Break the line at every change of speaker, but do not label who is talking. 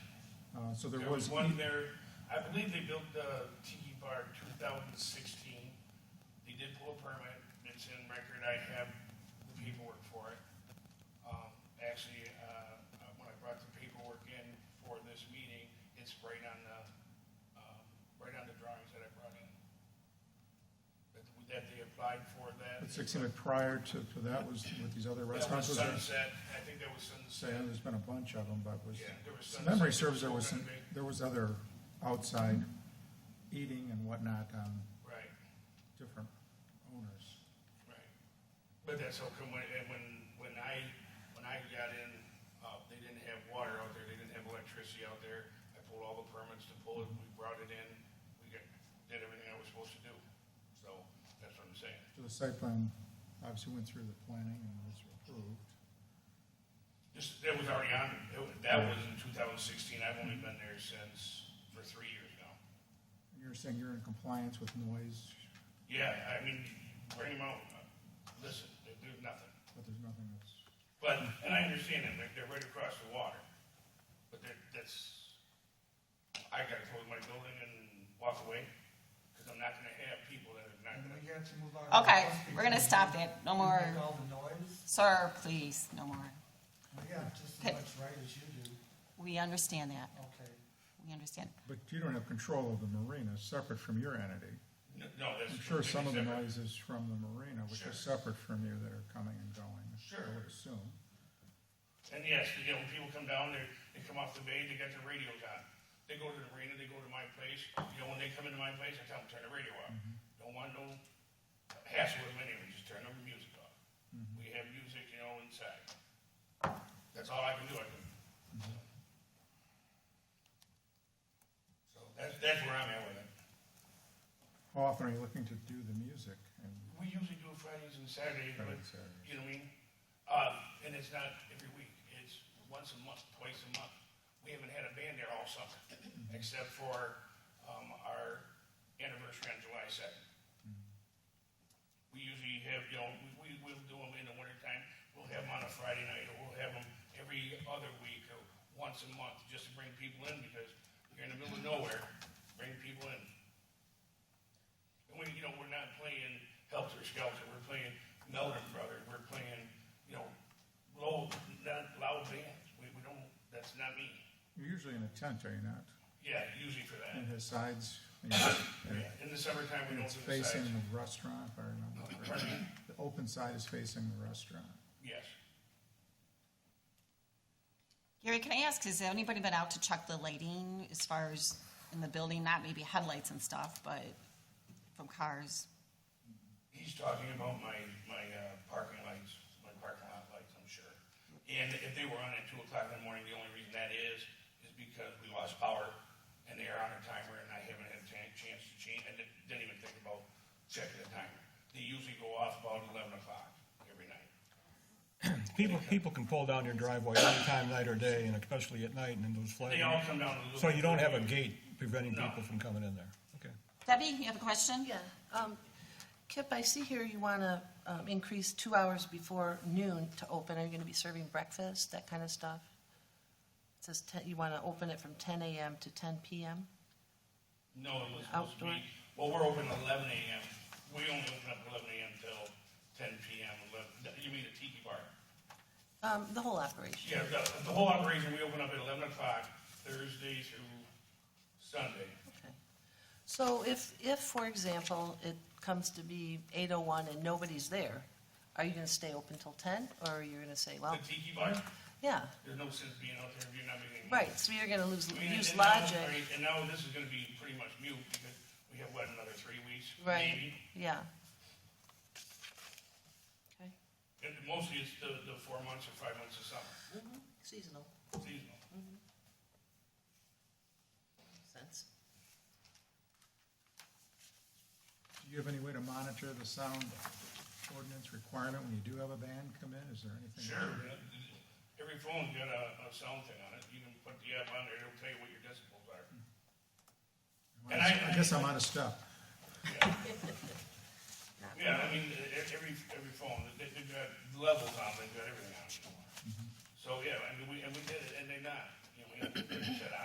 Uh, so there
There
was.
was one there, I believe they built, uh, Tiki Bar two thousand sixteen. They did pull a permit, it's in record, I have the paperwork for it. Um, actually, uh, uh, when I brought the paperwork in for this meeting, it's right on the, um, right on the drawings that I brought in. That, that they applied for that.
It seemed like prior to, to that was with these other
That was
restaurants. was there-
Sunset, I think that was
say,
Sunset.
There's been a bunch of them, but was,
Yeah, there was
if memory serves,
Sunset,
there was,
Golden
some-
Gate.
there was other outside eating and whatnot, um,
Right.
different owners.
Right. But that's how come when, and when, when I, when I got in, uh, they didn't have water out there, they didn't have electricity out there. I pulled all the permits to pull it, we brought it in, we got, did everything I was supposed to do. So, that's what I'm saying.
So the site plan obviously went through the planning and was approved.
This, that was already on, it wa- that was in two thousand sixteen, I've only been there since, for three years now.
And You're saying you're in compliance with noise,
Yeah, I mean, bring them out, uh, listen, there- there's nothing.
but there's nothing that's,
But, and I understand that, like, they're right across the water, but that, that's, I gotta close my building and walk away, cause I'm not gonna have people that are not
And
gonna,
we got to move on.
Okay, we're gonna stop that. No
You
more.
Make all the noise.
Sir, please, no more.
We got just
Okay.
as much right as you do.
We understand that.
Okay.
We understand.
but you don't have control of the marina, separate from your entity.
no, no, that's.
I'm sure some of the
separate.
noise is from the marina, which
Sure.
is separate from you that are coming and going. I
Sure.
would assume.
And yes, you know, when people come down, they, they come off the bay, they got their radios on. They go to the arena, they go to my place, you know, when they come into my place, I tell them, turn the radio off. Don't want no hassle with them anyway, just turn the music off. We have music, you know, inside. That's all I can do, I can. So that's, that's where I'm at with it.
How often are you looking to do the music? And
We usually do Fridays and Saturdays, but,
Fridays, Saturdays.
you know what I mean? Um, and it's not every week, it's once a month, twice a month. We haven't had a band there all summer,
Mm-hmm.
except for, um, our anniversary on July second.
Mm-hmm.
We usually have, you know, we, we, we'll do them in the wintertime, we'll have them on a Friday night, or we'll have them every other week, or once a month, just to bring people in, because you're in the middle of nowhere, bring people in. And we, you know, we're not playing Helter Skelter, we're playing Melvin Brothers, we're playing, you know, low, not loud bands. We, we don't, that's not me.
You're usually in a tent, are you not?
Yeah, usually for that.
And has sides, and and
Yeah, Oh, In the summertime, we
and
don't
it's
do the sides.
facing the restaurant, if I remember correctly. The open side is facing the restaurant.
Yes.
Gary, can I ask, has anybody been out to check the lighting as far as in the building? Not maybe headlights and stuff, but from cars.
He's talking about my, my uh, parking lights, my parking lot lights, I'm sure. And if they were on at two o'clock in the morning, the only reason that is, is because we lost power and they are on a timer and I haven't had a chan- chance to change, I didn't didn't even think about checking the timer. They usually go off about eleven o'clock every night.
People, people can pull down your driveway any time, night or day, and especially at night and in those
They all
flat.
come down to the.
So you don't have a gate preventing
No.
people from coming in there? Okay.
Debbie, you have a question?
Yeah, um, Kip, I see here you want to, um, increase two hours before noon to open. Are you going to be serving breakfast, that kind of stuff? It says ten, you want to open it from ten AM to ten PM?
No, it was supposed to
Outdoor.
be, well, we're open eleven AM. We only open up eleven AM till ten PM, eleven, you mean the tiki bar?
Um, the whole operation?
Yeah, the, the whole operation, we open up at eleven o'clock Thursday through Sunday.
Okay. So if, if, for example, it comes to be eight oh one and nobody's there, are you going to stay open till ten, or are you going to say, well,
The tiki bar,
yeah,
there's no sense being out there if you're not making. money.
right, so you're going to lose,
I mean,
use
and now-
logic,
right, And now this is gonna be pretty much mute because we have, what, another three weeks?
right,
maybe?
yeah. Okay,
And mostly it's the, the four months or five months of summer,
seasonal.
seasonal.
sense.
Do you have any way to monitor the sound ordinance requirement when you do have a band come in? Is there anything?
Sure, but every phone's got a, a sound thing on it, you can put the app on there, it'll tell you what your decibels are. And I-
Hmm. I guess I'm out of step.
Yeah, I mean, e- e- every, every phone, they, they've got levels on, they've got everything on. So, yeah, I mean, we, and we did it, and they not, you know, we said,